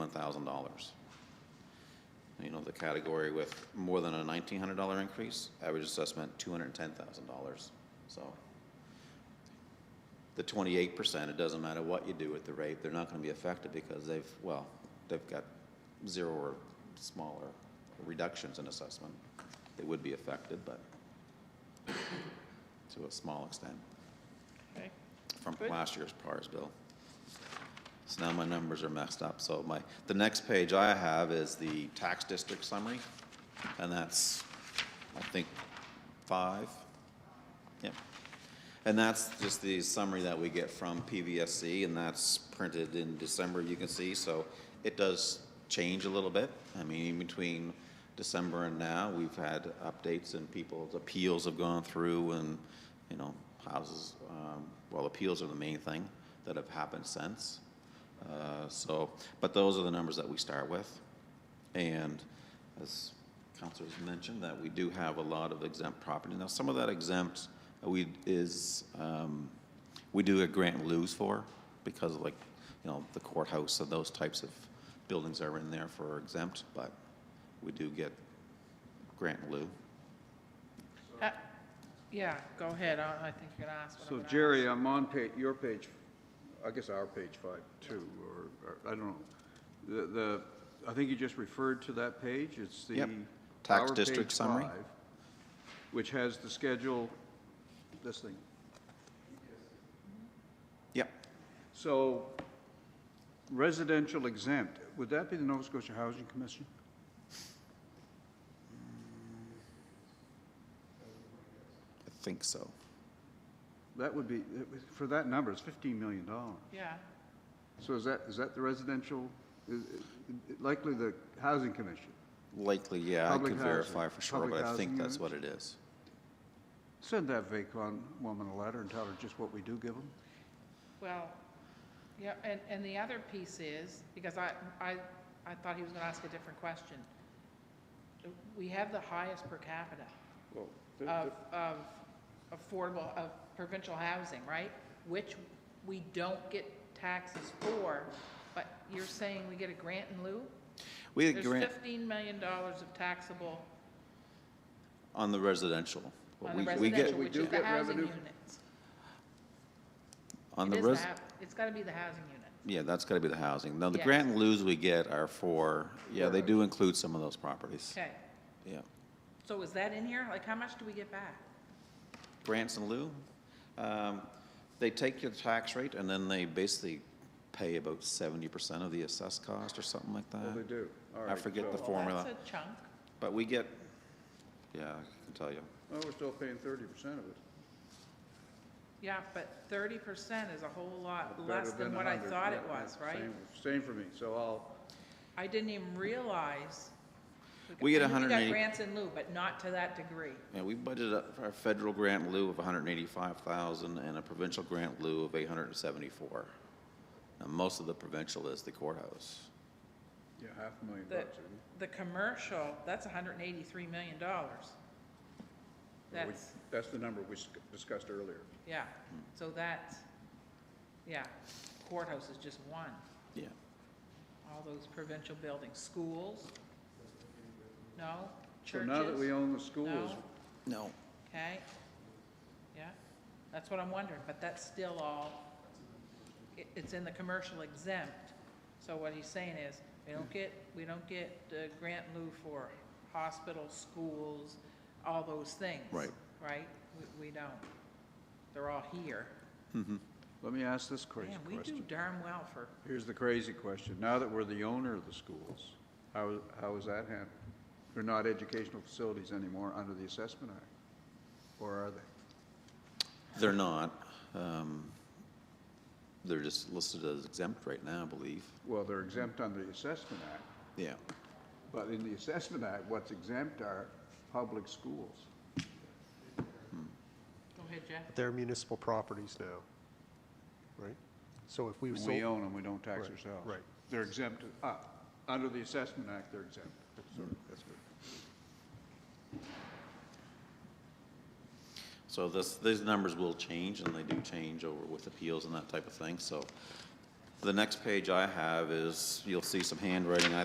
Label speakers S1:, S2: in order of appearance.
S1: $1,000. You know, the category with more than a $1,900 increase, average assessment $210,000. So the 28%, it doesn't matter what you do with the rate, they're not going to be affected because they've, well, they've got zero or smaller reductions in assessment. They would be affected, but to a small extent
S2: Okay.
S1: from
S2: Good.
S1: last year's PARS bill. So now my numbers are messed up, so my, the next page I have is the tax district summary, and that's, I think, five. Yep. And that's just the summary that we get from PVSC, and that's printed in December, you can see, so it does change a little bit. I mean, in between December and now, we've had updates and people's appeals have gone through and, you know, houses, um, well, appeals are the main thing that have happened since. Uh, So, but those are the numbers that we start with. And as counselors mentioned, that we do have a lot of exempt property. Now, some of that exempt, uh, we, is, um, we do a grant and lose for, because of like, you know, the courthouse, so those types of buildings are in there for exempt, but we do get grant and lieu.
S2: Uh, Yeah, go ahead, I I think you're gonna ask what I'm
S3: So
S2: gonna ask.
S3: Jerry, I'm on pa, your page, I guess our page five too, or, or, I don't know. The, the, I think you just referred to that page, it's the.
S1: Yep. Tax
S3: our
S1: district
S3: page
S1: summary.
S3: five, Which has the schedule, this thing.
S1: Yep,
S3: So residential exempt, would that be the Nova Scotia Housing Commission?
S1: I think so.
S3: That would be, that would- for that number, it's fifteen million dollars.
S2: Yeah,
S3: So is that, is that the residential, i- i- likely the Housing Commission?
S1: Likely, yeah, I
S3: Public
S1: could
S3: housing-
S1: verify for sure,
S3: public
S1: but I think
S3: housing
S1: that's
S3: units?
S1: what it is.
S3: Send that Vacon woman a letter and tell her just what we do give them.
S2: well, yeah, and, and the other piece is, because I, I, I thought he was gonna ask a different question. We have the highest per capita of, of affordable, of provincial housing, right? Which we don't get taxes for, but you're saying we get a grant in lieu?
S1: We had
S2: There's
S1: grant
S2: fifteen million dollars of taxable
S1: on the residential. but
S2: on the
S1: we- we get-
S2: residential,
S3: we
S2: which
S3: do
S2: is the
S3: get
S2: housing
S3: revenue.
S2: units.
S1: On
S2: It
S1: the
S2: is the
S1: res,
S2: hou- It's gotta be the housing unit.
S1: yeah, that's gotta be the housing. Now, the
S2: Yeah.
S1: grant and lieu's we get are for, yeah, they do include some of those properties.
S2: Okay,
S1: Yeah.
S2: so is that in here? Like, how much do we get back?
S1: Grants and lieu, um, they take your tax rate and then they basically pay about seventy percent of the assessed cost or something like that.
S3: do. All
S1: I
S3: right,
S1: forget the
S3: so-
S1: formula,
S2: That's a chunk.
S1: but we get, yeah, I can tell you.
S3: Well, oh, we're still paying thirty percent of it.
S2: Yeah, but thirty percent is a whole lot
S3: Better
S2: Uh, less than what I
S3: 100,
S2: thought it
S3: yeah,
S2: was,
S3: yeah,
S2: right?
S3: same- Same for me, so I'll,
S2: I didn't even realize.
S1: We get
S2: I knew We
S1: 180
S2: got grants in lieu, but not to that degree.
S1: Yeah, we budgeted up for a federal grant in lieu of 185,000 and a provincial grant in lieu of 874. Now, most of the provincial is the courthouse.
S3: yeah, half a million
S2: The,
S3: bucks. isn't it?
S2: the commercial, that's hundred and eighty-three million dollars.
S3: We-
S2: That's,
S3: That's the number we sc- discussed earlier.
S2: yeah, so that's, yeah, courthouse is just one.
S1: Yeah.
S2: all those provincial buildings, schools? No?
S3: So
S2: Churches?
S3: now that we own the schools,
S2: No?
S1: No.
S2: Okay. Yeah, that's what I'm wondering, but that's still all, it, it's in the commercial exempt. So what he's saying is, we don't get, we don't get uh grant in lieu for hospitals, schools, all those things.
S1: Right.
S2: Right? We, we don't. They're all here.
S3: let me ask this crazy
S2: Man, we do
S3: question.
S2: darn well for,
S3: Here's the crazy question. Now that we're the owner of the schools, how, how is that handled? They're not educational facilities anymore under the Assessment Act, or are they?
S1: They're not. um, They're just listed as exempt right now, I believe.
S3: Well, they're exempt under the Assessment Act.
S1: Yeah.
S3: But in the assessment act, what's exempt are public schools.
S2: go ahead, Jeff.
S4: They're municipal properties now, right? So if we
S3: We
S4: sold,
S3: own them, we don't tax
S4: Right,
S3: ourselves.
S4: right.
S3: They're exempt, uh, under the assessment act, they're exempt. Sorry, that's good.
S1: So this, these numbers will change, and they do change over with appeals and that type of thing, so The next page I have is, you'll see some handwriting, I